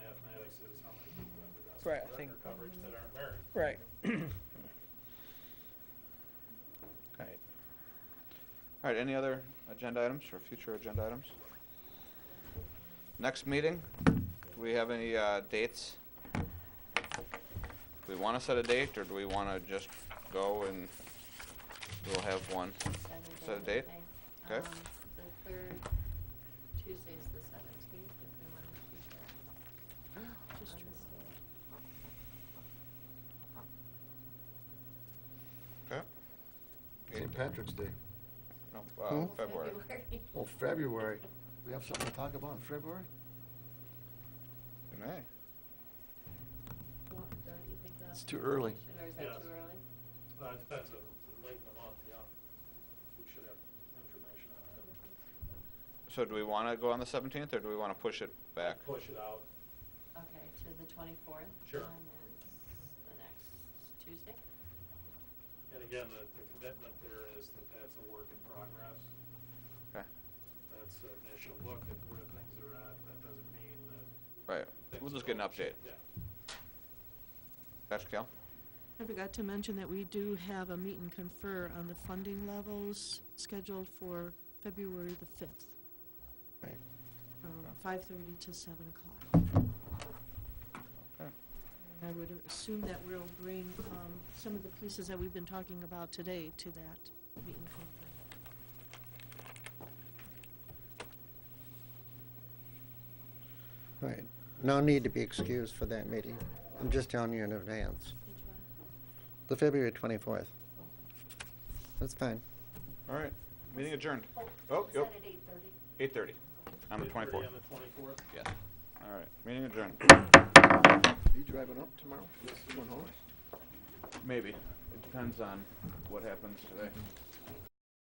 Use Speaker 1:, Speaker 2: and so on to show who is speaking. Speaker 1: Right, I
Speaker 2: under
Speaker 1: think-
Speaker 2: coverage that aren't married.
Speaker 1: Right. Right.
Speaker 3: All right, any other agenda items or future agenda items? Next meeting, do we have any uh, dates? Do we want to set a date, or do we want to just go and we'll have one? Set a date? Okay.
Speaker 4: Um, The third, Tuesday's the seventeenth, if we want to keep it. Just
Speaker 3: Okay.
Speaker 5: St. Patrick's Day.
Speaker 3: No, uh,
Speaker 5: Hmm?
Speaker 3: February.
Speaker 5: Well, February. We have something to talk about in February?
Speaker 3: In May.
Speaker 4: Well, Don't you think that's?
Speaker 5: It's too early.
Speaker 4: Or is that
Speaker 2: Yes.
Speaker 4: too early?
Speaker 2: Uh, it depends on, late in the month, yeah. We should have information on that.
Speaker 3: So do we want to go on the 17th, or do we want to push it back?
Speaker 2: Push it out.
Speaker 4: Okay, to the twenty-fourth?
Speaker 2: Sure.
Speaker 4: And then the next Tuesday?
Speaker 2: And again, the, the commitment there is that that's a work in progress.
Speaker 3: Okay,
Speaker 2: That's an initial look at where things are at. That doesn't mean that.
Speaker 3: right,
Speaker 2: things
Speaker 3: we'll just
Speaker 2: are
Speaker 3: get an
Speaker 2: always-
Speaker 3: update.
Speaker 2: Yeah.
Speaker 3: Dr. Cal?
Speaker 6: I forgot to mention that we do have a meet and confer on the funding levels scheduled for February the fifth,
Speaker 5: Right.
Speaker 6: from
Speaker 3: Okay.
Speaker 6: five thirty to seven o'clock.
Speaker 3: Okay.
Speaker 6: And I would assume that we'll bring, um, some of the pieces that we've been talking about today to that meet and confer.
Speaker 7: Right. No need to be excused for that meeting. I'm just telling you in advance.
Speaker 4: Which one?
Speaker 7: The February 24th. That's fine.
Speaker 3: All right, meeting adjourned.
Speaker 4: Oh,
Speaker 3: Oh,
Speaker 4: is
Speaker 3: yep,
Speaker 4: that at eight thirty?
Speaker 3: 8:30 on the
Speaker 2: 8:30
Speaker 3: 24th.
Speaker 2: On the twenty-fourth.
Speaker 3: Yes. All right, meeting adjourned.
Speaker 5: Are you driving up tomorrow? Going home?
Speaker 3: Maybe. It depends on what happens today.